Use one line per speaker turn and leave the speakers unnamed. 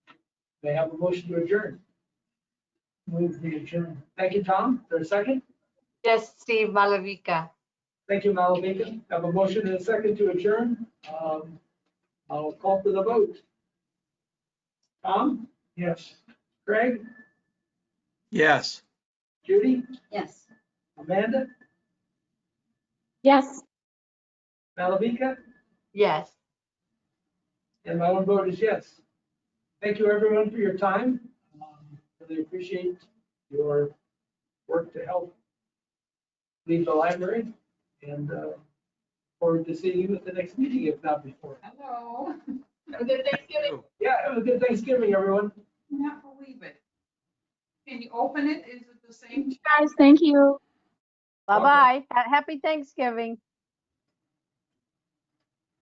May I have a motion to adjourn? Move the adjourn. Thank you, Tom. There's a second?
Yes, Steve Malavika.
Thank you, Malavika. Have a motion and a second to adjourn. Um, I'll call for the vote. Tom? Yes. Craig?
Yes.
Judy?
Yes.
Amanda?
Yes.
Malavika?
Yes.
And my own vote is yes. Thank you, everyone, for your time. Um, Really appreciate your work to help lead the library and uh, forward to seeing you at the next meeting, if not before.
Hello. Have a good Thanksgiving.
Yeah, have a good Thanksgiving, everyone.
Not believe it. Can you open it? Is it the same?
Guys, thank you.
Bye-bye. Ha- Happy Thanksgiving.